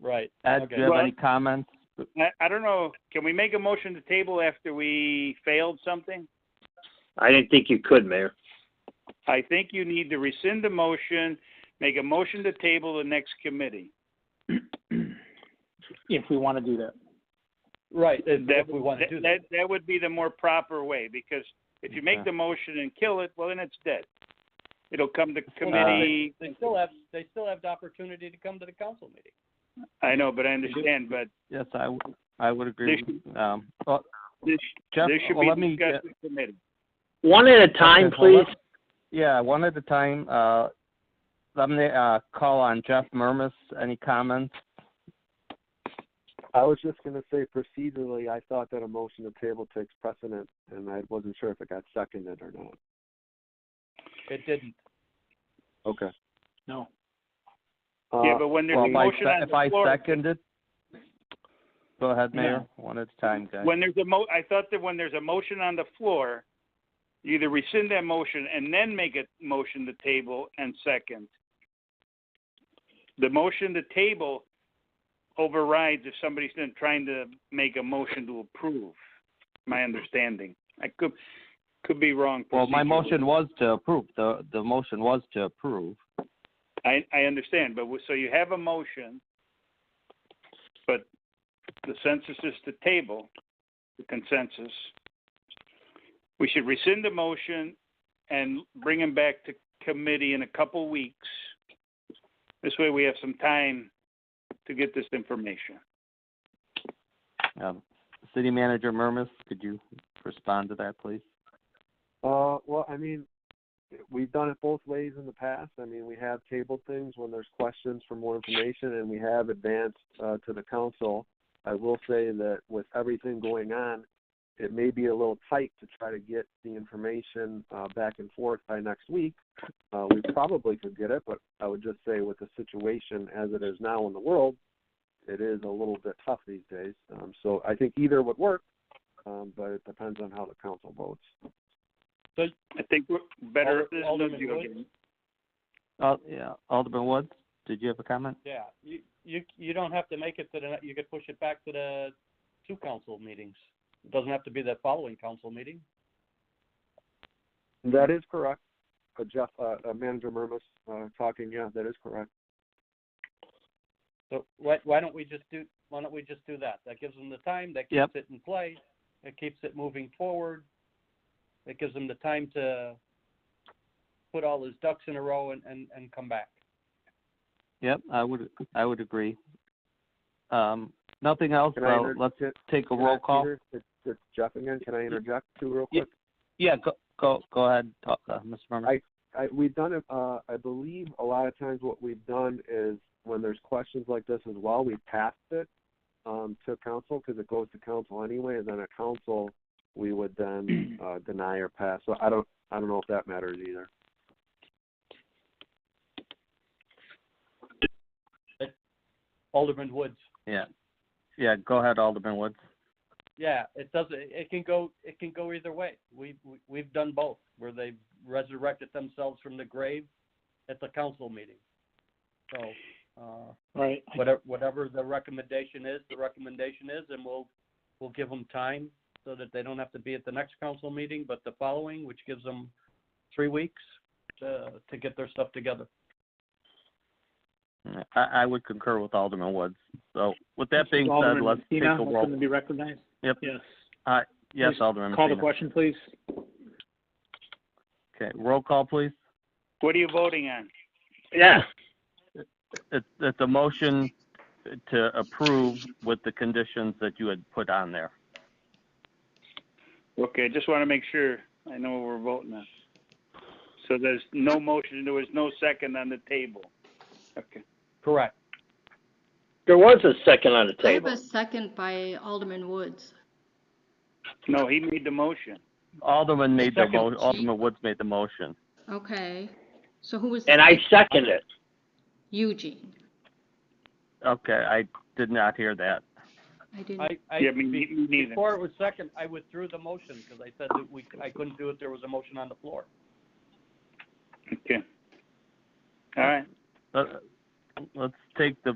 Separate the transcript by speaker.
Speaker 1: Right.
Speaker 2: Ed,
Speaker 1: Okay.
Speaker 2: do you have
Speaker 3: Well-
Speaker 2: any comments?
Speaker 3: I, I don't know. Can we make a motion to table after we failed something?
Speaker 4: I didn't think you could, Mayor.
Speaker 3: I think you need to rescind the motion, make a motion to table the next committee.
Speaker 5: if we want to do that.
Speaker 1: Right. If,
Speaker 3: That-
Speaker 1: if we want to do that.
Speaker 3: That, that would be the more proper way, because if you make
Speaker 2: Okay.
Speaker 3: the motion and kill it, well, then it's dead. It'll come
Speaker 2: Uh,
Speaker 3: to
Speaker 1: Well,
Speaker 3: committee,
Speaker 1: Uh, They still have they still have the opportunity to come to the council meeting.
Speaker 3: I know, but I understand, but
Speaker 2: Yes, I, w- I would agree.
Speaker 3: There
Speaker 2: with- Um, well,
Speaker 3: this,
Speaker 2: Jeff,
Speaker 3: this should
Speaker 2: well, let me
Speaker 3: be
Speaker 2: get,
Speaker 3: discussed in committee.
Speaker 4: One at a time,
Speaker 2: Okay, well,
Speaker 4: please.
Speaker 2: let- yeah, one at a time. Uh, let me uh, call on Jeff Murmas. Any comments?
Speaker 6: I was just going to say procedurally, I thought that a motion to table takes precedent, and I wasn't sure if it got seconded or not.
Speaker 1: It didn't.
Speaker 6: Okay.
Speaker 5: No.
Speaker 6: Uh,
Speaker 3: Yeah, but when there's
Speaker 2: Well,
Speaker 3: a
Speaker 2: if I,
Speaker 3: motion
Speaker 2: se-
Speaker 3: on
Speaker 2: if I
Speaker 3: the floor,
Speaker 2: seconded, go ahead, Mayor, one at a time, guys.
Speaker 3: when there's a mo, I thought that when there's a motion on the floor, you either rescind that motion and then make a motion to table and second. The motion to table overrides if somebody's been trying to make a motion to approve, my understanding. I could, could be wrong.
Speaker 2: Well, my
Speaker 3: procedurally.
Speaker 2: motion was to approve, the, the motion was to approve.
Speaker 3: I, I understand, but, we- so you have a motion, but the census is to table, the consensus. We should rescind the motion and bring them back to committee in a couple weeks. This way we have some time to get this information.
Speaker 2: Um, City Manager Murmas, could you respond to that, please?
Speaker 6: Uh, well, I mean, we've done it both ways in the past. I mean, we have tabled things when there's questions for more information, and we have advanced uh, to the council. I will say that with everything going on, it may be a little tight to try to get the information uh, back and forth by next week. Uh, we probably could get it, but I would just say with the situation as it is now in the world, it is a little bit tough these days. Um, so I think either would work, um, but it depends on how the council votes.
Speaker 3: I think we're better.
Speaker 1: Alder- Alderman Woods?
Speaker 2: Uh, yeah, Alderman Woods, did you have a comment?
Speaker 1: Yeah. You you you don't have to make it to the you could push it back to the two council meetings. It doesn't have to be the following council meeting.
Speaker 6: That is correct. Uh, Jeff, uh, uh, Manager Murmas, uh, talking. Yeah, that is correct.
Speaker 1: So why why don't we just do why don't we just do that? That gives them the time. That keeps
Speaker 2: Yep.
Speaker 1: it in play. It keeps it moving forward. It gives them the time to put all his ducks in a row and and, and come back.
Speaker 2: Yep, I would, I would agree. Um, nothing else,
Speaker 6: Can I
Speaker 2: uh,
Speaker 6: inter-
Speaker 2: let's
Speaker 6: can-
Speaker 2: take a
Speaker 6: can I-
Speaker 2: roll call.
Speaker 6: Peter, It's, it's Jeff again. Can I interject too, real
Speaker 2: Yeah.
Speaker 6: quick?
Speaker 2: Yeah, go, go, go ahead, talk, uh, Mr. Murmas.
Speaker 6: I, we've done it. Uh, I believe a lot of times what we've done is when there's questions like this as well, we passed it um, to council because it goes to council anyway, and then at council we would then uh, deny or pass. So I don't, I don't know if that matters either.
Speaker 1: Alderman Woods.
Speaker 2: Yeah, yeah, go ahead, Alderman Woods.
Speaker 1: Yeah, it doesn't. It can go. It can go either way. We, we we've done both, where they've resurrected themselves from the grave at the council meeting. So uh,
Speaker 5: Right.
Speaker 1: whatever whatever the recommendation is, the recommendation is, and we'll we'll give them time so that they don't have to be at the next council meeting, but the following, which gives them three weeks to to get their stuff together.
Speaker 2: I, I would concur with Alderman Woods. So with that being said,
Speaker 5: Alderman
Speaker 2: uh, let's take a
Speaker 5: Messina,
Speaker 2: roll.
Speaker 5: open to be recognized.
Speaker 2: Yep.
Speaker 5: Yes.
Speaker 2: Yes,
Speaker 5: please
Speaker 2: Alderman
Speaker 5: Call the
Speaker 2: Messina.
Speaker 5: question, please.
Speaker 2: Okay, roll call, please.
Speaker 3: What are you voting on?
Speaker 4: Yeah.
Speaker 2: It's, it's a motion to approve with the conditions that you had put on there.
Speaker 3: Okay, just want to make sure I know what we're voting on. So there's no motion, there was no second on the table. Okay.
Speaker 1: Correct.
Speaker 4: There was a second on the
Speaker 7: I have
Speaker 4: table.
Speaker 7: a second by Alderman Woods.
Speaker 3: No, he made the motion.
Speaker 2: Alderman made the mo,
Speaker 1: Second.
Speaker 2: Alderman Woods made the motion.
Speaker 7: Okay. So who was
Speaker 4: And I second it.
Speaker 7: Eugene?
Speaker 2: Okay, I did not hear that.
Speaker 7: I didn't.
Speaker 1: I, I
Speaker 3: Yeah, me me neither.
Speaker 1: before it was second, I withdrew the motion because I said that we I couldn't do it. There was a motion on the floor.
Speaker 3: Okay. All right.
Speaker 2: Let, let's take the